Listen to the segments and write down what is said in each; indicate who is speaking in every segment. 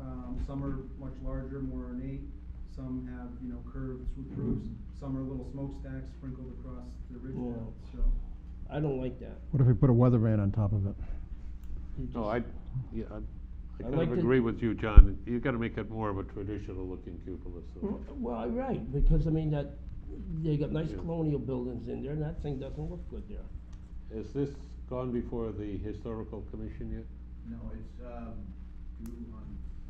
Speaker 1: Um, some are much larger, more ornate, some have, you know, curved swoop roofs, some are little smokestacks sprinkled across the ridge
Speaker 2: Mm-hmm. Yeah.
Speaker 1: now, so.
Speaker 2: I don't like that.
Speaker 3: What if we put a weather van on top of it?
Speaker 2: You
Speaker 4: No,
Speaker 5: Oh,
Speaker 2: just-
Speaker 4: I, yeah, I- I kind
Speaker 2: like
Speaker 4: of
Speaker 2: to-
Speaker 4: agree with you, John. You gotta make it more of a traditional looking cupola, so.
Speaker 2: Mm, Well, right, because I mean that, they got nice
Speaker 4: Yeah.
Speaker 2: colonial buildings in there and that thing doesn't look good there.
Speaker 4: Has this gone before the historical commission yet?
Speaker 6: No, it's, um, due on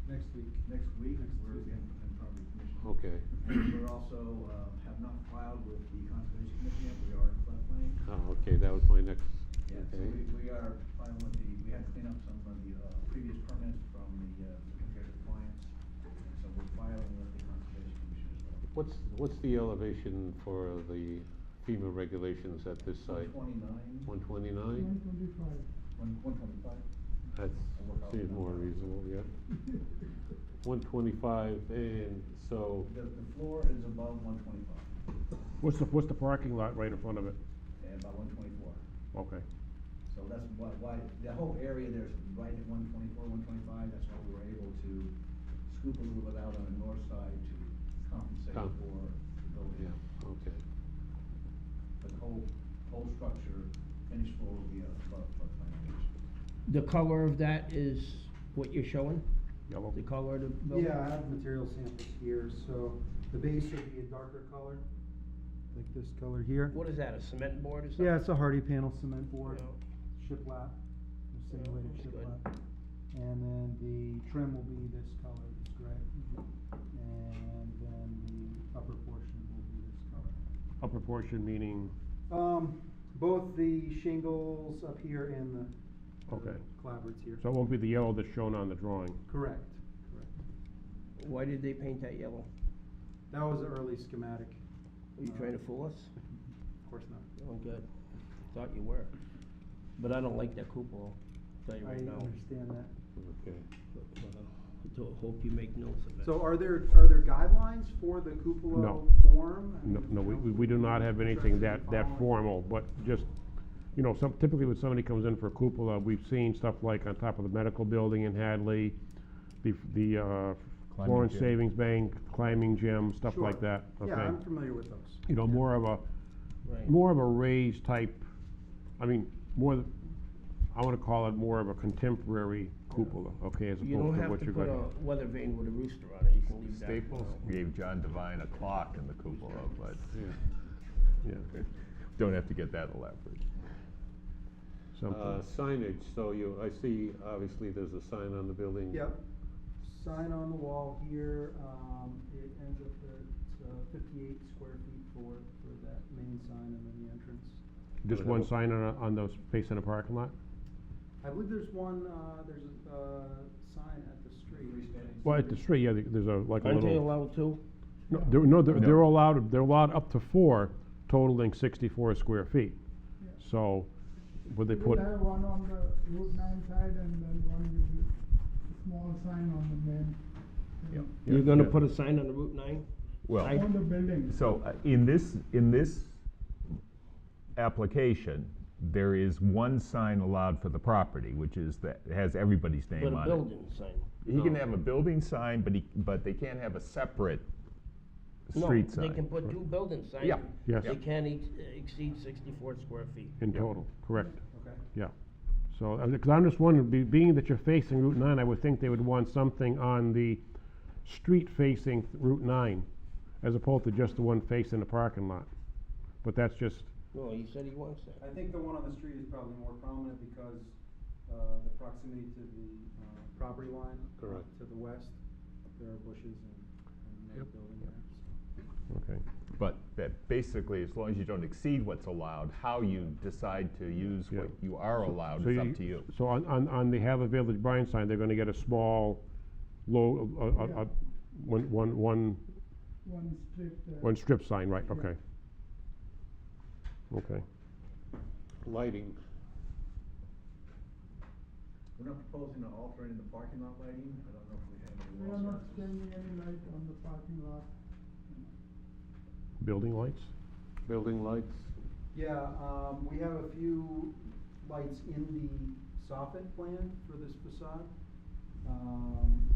Speaker 1: Next week.
Speaker 6: next week,
Speaker 1: Next
Speaker 6: we're
Speaker 1: Tuesday.
Speaker 6: in, in property commission.
Speaker 4: Okay.
Speaker 6: And we're also, uh, have not filed with the conservation commission yet, we are in floodplain.
Speaker 4: Oh, okay, that was my next,
Speaker 6: Yeah, so
Speaker 4: okay.
Speaker 6: we, we are filing with the, we had to clean up some of the, uh, previous permits from the, uh, contractor clients, and so we're filing with the conservation commission as well.
Speaker 4: What's, what's the elevation for the FEMA regulations at this site?
Speaker 6: One twenty-nine,
Speaker 4: One twenty-nine?
Speaker 6: one, one twenty-five?
Speaker 4: That seems more reasonable, yeah. One twenty-five, and so,
Speaker 6: The, the floor is above one twenty-five,
Speaker 5: What's the, what's the parking lot right in front of it?
Speaker 6: and about one twenty-four.
Speaker 5: Okay.
Speaker 6: So that's why, why, the whole area there's right at one twenty-four, one twenty-five, that's why we were able to scoop a little bit out on the north side to compensate
Speaker 4: Com-
Speaker 6: for
Speaker 4: yeah,
Speaker 6: the building.
Speaker 4: okay.
Speaker 6: But the whole, whole structure finished floor will be uh, above floodplain elevation.
Speaker 2: The color of that is what you're showing,
Speaker 5: Yellow.
Speaker 2: the color of the building?
Speaker 1: Yeah, I have material samples here, so the base would be a darker color, like this color here.
Speaker 2: What is that, a cement board or something?
Speaker 1: Yeah, it's a hardy panel cement board,
Speaker 2: Yeah.
Speaker 1: shiplap, simulated
Speaker 2: that's good.
Speaker 1: shiplap. And then the trim will be this color, this gray.
Speaker 2: Mm-hmm.
Speaker 1: And then the upper portion will be this color.
Speaker 5: Upper portion meaning,
Speaker 1: Um, both the shingles up here and the
Speaker 5: Okay.
Speaker 1: clavards here.
Speaker 5: so it won't be the yellow that's shown on the drawing.
Speaker 1: Correct, correct.
Speaker 2: Why did they paint that yellow?
Speaker 1: That was an early schematic.
Speaker 2: Are you
Speaker 1: Uh,
Speaker 2: trying to fool us?
Speaker 1: Of course not.
Speaker 2: Oh, good. Thought you were. But I don't like that cupola, tell you
Speaker 1: I
Speaker 2: right now.
Speaker 1: understand that.
Speaker 4: Okay.
Speaker 2: But, uh, ho- Hope you make notes of it.
Speaker 1: So are there, are there guidelines for the cupola
Speaker 5: No.
Speaker 1: form? I
Speaker 5: No,
Speaker 1: mean,
Speaker 5: no, we, we we do not have anything that, that formal, but just, you know, some, typically when somebody comes in for a cupola, we've seen stuff like on top of the medical building in Hadley, the, f- the, uh,
Speaker 7: Climbing
Speaker 5: Florence
Speaker 7: gym.
Speaker 5: Savings Bank, climbing gym, stuff like
Speaker 1: Sure.
Speaker 5: that, okay?
Speaker 1: Yeah, I'm familiar with those.
Speaker 5: You know, more of a,
Speaker 2: Right.
Speaker 5: more of a raised type, I mean, more, th- I wanna call it more of a contemporary cupola, okay, as
Speaker 2: You don't
Speaker 5: opposed to
Speaker 2: have
Speaker 5: what
Speaker 2: to
Speaker 5: you're
Speaker 2: put
Speaker 5: gonna.
Speaker 2: a weather vane with a rooster on it, you can leave that. alone.
Speaker 7: Gave John Devine a clock in the cupola, but
Speaker 5: Yeah,
Speaker 7: don't have to get that elaborate.
Speaker 5: something.
Speaker 4: Uh, signage, so you, I see, obviously, there's a sign on the building.
Speaker 1: Yep. Sign on the wall here, um, it ends up at uh, fifty-eight square feet for, for that main sign and then the entrance.
Speaker 5: Just
Speaker 4: Whatever.
Speaker 5: one sign on, a- on the space in a parking lot?
Speaker 1: I believe there's one, uh, there's a, uh, sign at the street.
Speaker 5: Well, at the street, yeah, there- there's a, like a
Speaker 2: Aren't they
Speaker 5: little,
Speaker 2: allowed to?
Speaker 5: no, they're, no, they're, they're
Speaker 7: No.
Speaker 5: allowed, they're allowed up to four, totaling sixty-four square feet. So, would they put,
Speaker 8: We'll have one on the Route nine side and then one with the small sign on the main.
Speaker 7: Yep.
Speaker 2: You're gonna
Speaker 5: yeah.
Speaker 2: put a sign on the Route nine?
Speaker 7: Well.
Speaker 2: I-
Speaker 8: On the building.
Speaker 7: So uh, in this, in this application, there is one sign allowed for the property, which is that, it has everybody's
Speaker 2: But
Speaker 7: name
Speaker 2: a
Speaker 7: on it.
Speaker 2: building sign.
Speaker 7: He can have a building sign, but he, but they can't have a separate street
Speaker 2: No, they can
Speaker 7: sign.
Speaker 2: put two building signs.
Speaker 7: Yeah.
Speaker 5: Yes.
Speaker 2: They can't ex- exceed sixty-four square feet.
Speaker 5: in total, correct?
Speaker 1: Okay.
Speaker 5: Yeah, so, because I'm just wondering, be- being that you're facing Route 9, I would think they would want something on the street facing Route 9, as opposed to just the one facing the parking lot. But that's just,
Speaker 2: No, he said he wants that.
Speaker 1: I think the one on the street is probably more prominent because, uh, the proximity to the, uh, property line. uh,
Speaker 4: Correct.
Speaker 1: To the west, there are bushes and, and no building there, so.
Speaker 5: okay,
Speaker 7: But that basically, as long as you don't exceed what's allowed, how you decide to use what
Speaker 5: Yeah.
Speaker 7: you are allowed
Speaker 5: So
Speaker 7: is
Speaker 5: you-
Speaker 7: up to you.
Speaker 5: so on, on, on the Have a Village Bryan sign, they're gonna get a small, low, uh, uh, uh, one, one, one,
Speaker 8: One strip there.
Speaker 5: one strip sign, right, okay. Okay,
Speaker 4: Lighting,
Speaker 6: We're not proposing to alter any of the parking lot lighting, I don't know if we have any.
Speaker 8: We are
Speaker 6: walls
Speaker 8: not
Speaker 6: around.
Speaker 8: changing any light on the parking lot.
Speaker 5: building lights?
Speaker 4: building lights,
Speaker 1: Yeah, um, we have a few lights in the soffit plan for this facade. Um,